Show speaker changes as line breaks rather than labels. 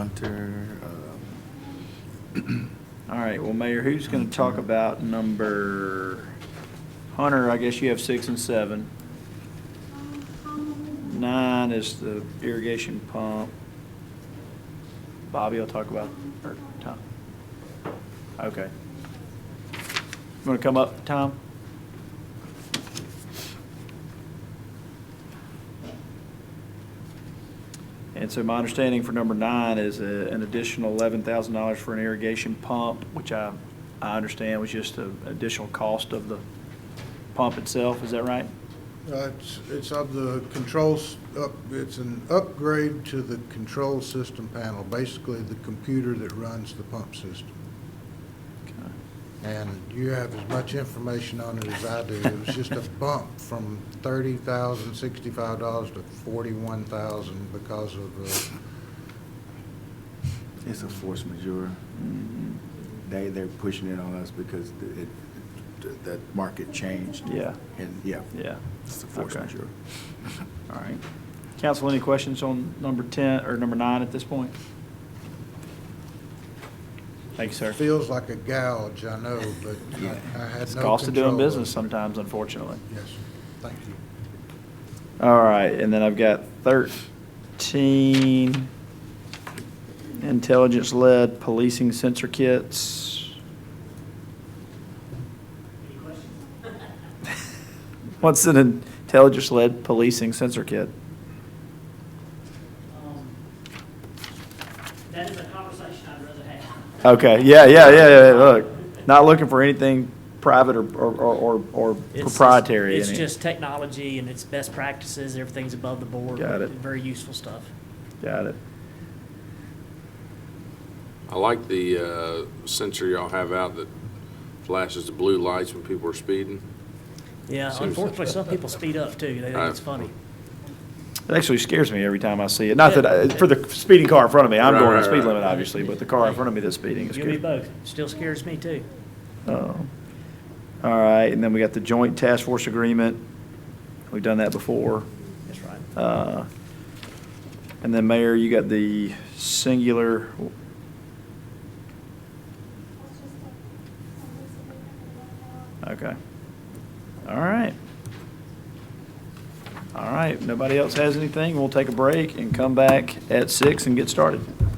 Hunter. um, All right, well, Mayor, who's going to talk about number, Hunter, I guess you have six and seven. Nine is the irrigation pump. Bobby will talk about, or Tom. Okay. Want to come up, Tom? And so my understanding for number nine is a- an additional eleven thousand dollars for an irrigation pump, which I, I understand was just an additional cost of the pump itself, is that right?
Uh, It's, it's of the controls, up- it's an upgrade to the control system panel, basically the computer that runs the pump system.
Okay.
And you have as much information on it as I do. It was just a bump from thirty thousand sixty-five dollars to forty-one thousand because of, uh,
It's a force majeure.
Mhm.
They, they're pushing it on us because the- it, the- the market changed.
Yeah.
And, yeah.
Yeah.
It's a force
Okay.
majeure.
All right. Council, any questions on number 10, or number nine at this point? Thank you, sir.
feels like a gouge, I know, but
Yeah.
I I had no control.
It's the cost of doing
it.
business sometimes, unfortunately.
Yes, thank you.
All right, and then I've got 13 intelligence-led policing sensor kits. What's an intelligence-led policing sensor kit?
Um, That is a conversation I'd rather have.
Okay, yeah, yeah, yeah, yeah, look, not looking for anything private or, or, or- or
It's just-
proprietary. in
It's
it.
just technology and it's best practices, everything's above the board.
Got it.
Very useful stuff.
Got it.
I like the uh, sensor y'all have out that flashes the blue lights when people are speeding.
Yeah,
Seriously.
unfortunately, some people speed up too, they think it's
I-
funny.
It actually scares me every time I see it, not that, I- for the speeding car in front of me, I'm
Right,
going the
right,
speed
right.
limit, obviously, but the car in front of me that's speeding is
You and me
scary.
both, still scares me too.
Um, All right, and then we got the joint task force agreement, we've done that before.
That's right.
Uh, And then Mayor, you got the singular, okay. All right. All right, nobody else has anything, we'll take a break and come back at six and get started.